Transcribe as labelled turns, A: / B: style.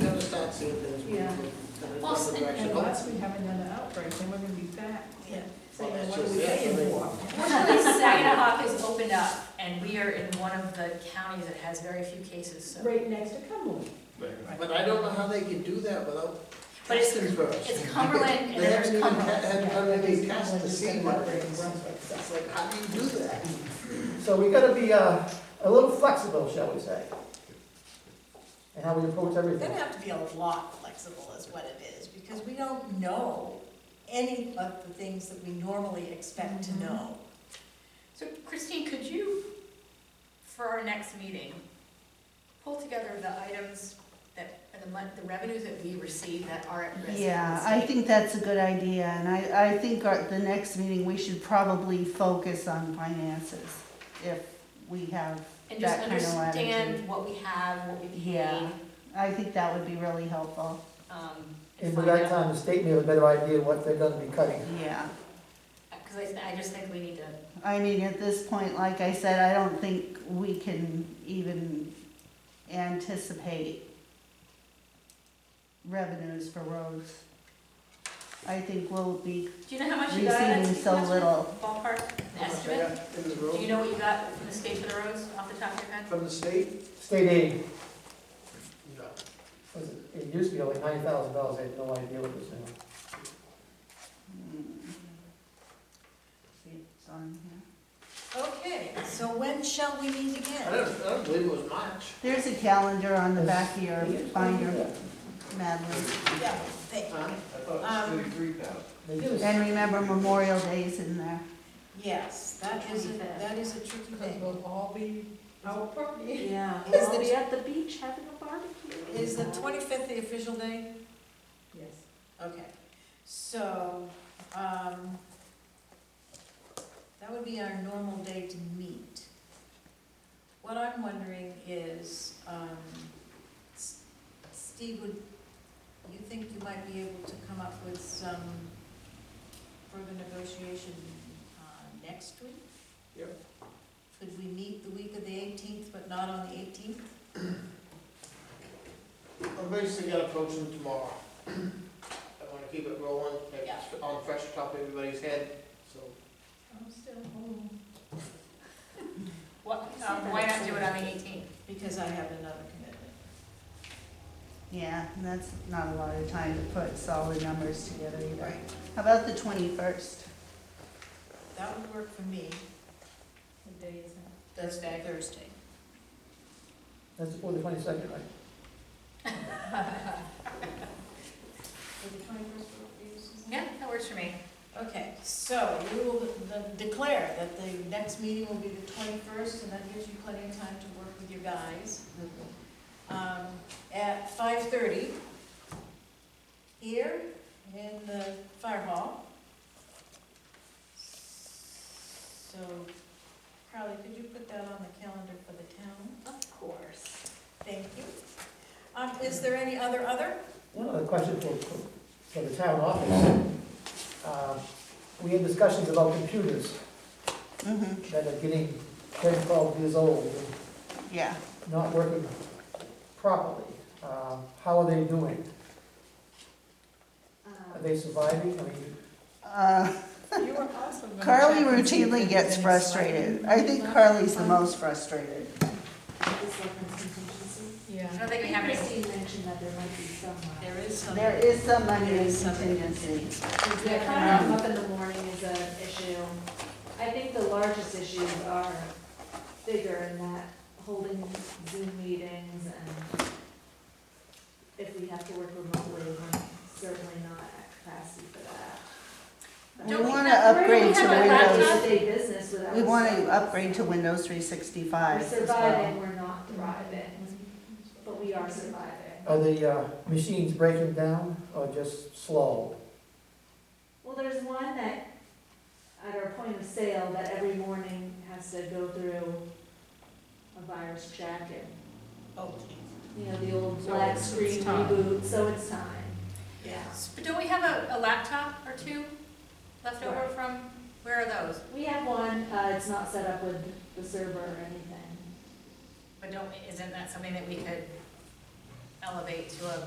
A: see if there's.
B: Yeah.
A: Well,
C: Well, s- and- and
A: direction.
B: Unless we have another outbreak, then we're gonna be back
C: Yeah.
A: Well,
B: saying,
A: that's
B: what are we
A: just it,
B: paying
A: so
B: for?
C: Fortunately, Saginaw has opened up, and we are in one of the counties that has very few cases, so.
B: Right next to Cumberland.
A: But I don't know how they can do that without
C: But it's-
A: testing first.
C: it's Cumberland and
A: They haven't
C: there's
A: even
C: Cumberland.
A: had, had done any tests to see what.
B: Cumberland, Brunswick, so.
A: It's like, how do you do that?
D: So we gotta be, uh, a little flexible, shall we say? And how we approach
E: We're
D: everything.
E: gonna have to be a lot flexible is what it is, because we don't know any of the things that we normally expect to know.
C: So Christine, could you, for our next meeting, pull together the items that, the mon, the revenues that we receive that are at risk? in the
F: Yeah, I
C: state?
F: think that's a good idea, and I, I think our, the next meeting, we should probably focus on finances, if we have
C: And just
F: that kind of latitude.
C: understand what we have, what we
F: Yeah.
C: paid,
F: I think that would be really helpful,
C: um, and
D: And by
C: find
D: that
C: out.
D: time, the state may have a better idea what they're gonna be cutting.
F: yeah.
C: Uh, Cause I, th- I just think we need to
F: I mean, at this point, like I said, I don't think we can even anticipate revenues for roads. I think we'll be
C: Do you know how much you got?
F: receiving so little.
C: Ballpark, an estimate?
A: In the
C: Do
A: room,
C: you know what you got from the state for the roads off the top of your head?
A: from the state?
D: State aid,
A: No.
D: was it, it used to be like ninety thousand dollars, I had no idea what it was now.
F: See, it's on here.
E: Okay, so when shall we meet
A: I
E: again?
A: don't, I don't believe it was March.
F: There's a calendar on the back of your binder, Madeline.
E: Yeah, they-
A: Huh? I thought
E: Um,
A: it was three thousand.
D: They do.
F: And remember Memorial Day's in there.
E: Yes, that is, a- that is a tricky
B: Because
E: thing.
B: we'll all be out partying.
C: Yeah.
E: Is the-
C: at the beach having a barbecue.
E: Is the twenty-fifth the official day?
B: Yes.
E: Okay, so, um, that would be our normal day to meet. What I'm wondering is, um, S- Steve, would, you think you might be able to come up with some further negotiation, uh, next week?
A: Yep.
E: Could we meet the week of the eighteenth, but not on the eighteenth?
A: I'm basically gonna approach them tomorrow. I wanna keep it rolling,
E: Yeah.
A: it's on fresh top of everybody's head, so.
E: I'm still home.
C: What, um, why not do it on the eighteenth?
E: Because I have another commitment.
F: Yeah, and that's not a lot of time to put solid numbers together either.
E: Right.
F: How about the twenty-first?
E: That would work for me.
B: What day is it?
E: That's Thursday.
D: That's before the twenty-second, right?
C: Yeah, that works for me.
E: Okay, so we will de- declare that the next meeting will be the twenty-first, and that gives you plenty of time to work with your guys. Um, At five-thirty, here in the fire hall. So, Carly, could you put that on the calendar for the town?
C: Of course.
E: Thank you. Um, is there any other other?
D: One other question for, for for the town office. Uh, We had discussions about computers
F: Mm-hmm,
D: that are getting ten, twelve years old and
F: yeah.
D: not working properly. Um, How are they doing?
C: Uh,
D: Are they surviving? I mean,
F: Uh,
E: You were also gonna
F: Carly
E: check and see if
F: routinely
E: there's
F: gets
E: any
F: frustrated.
E: sliding.
F: I think Carly's the most frustrated.
C: I
B: Yeah.
C: don't think we have any. uh,
E: There is some.
F: There is some money in
E: Something.
F: contingency.
G: Yeah, coming
F: um,
G: up in the morning is an issue. I think the largest issues are bigger in that holding Zoom meetings and if we have to work remotely, we're certainly not at capacity for that.
F: We
C: Don't we
F: wanna
C: have-
F: upgrade
C: don't
F: to
C: we have a laptop?
F: Windows,
G: Day-to-day business without.
F: we wanna
G: service.
F: upgrade to Windows three sixty-five
G: We're
F: as well.
G: surviving, we're not thriving, but we are surviving.
D: Are the uh, machines breaking down or just slow?
G: Well, there's one that, at our point of sale, that every morning has to go through a virus check and,
E: Oh, geez.
G: you know, the old
B: So
G: black
B: it's-
G: screen
B: it's time.
G: reboot, so it's time. Yeah.
C: But don't we have a, a laptop or two left over
G: Right.
C: from, where are those?
G: We have one, uh, it's not set up with the server or anything.
C: But don't, isn't that something that we could elevate to a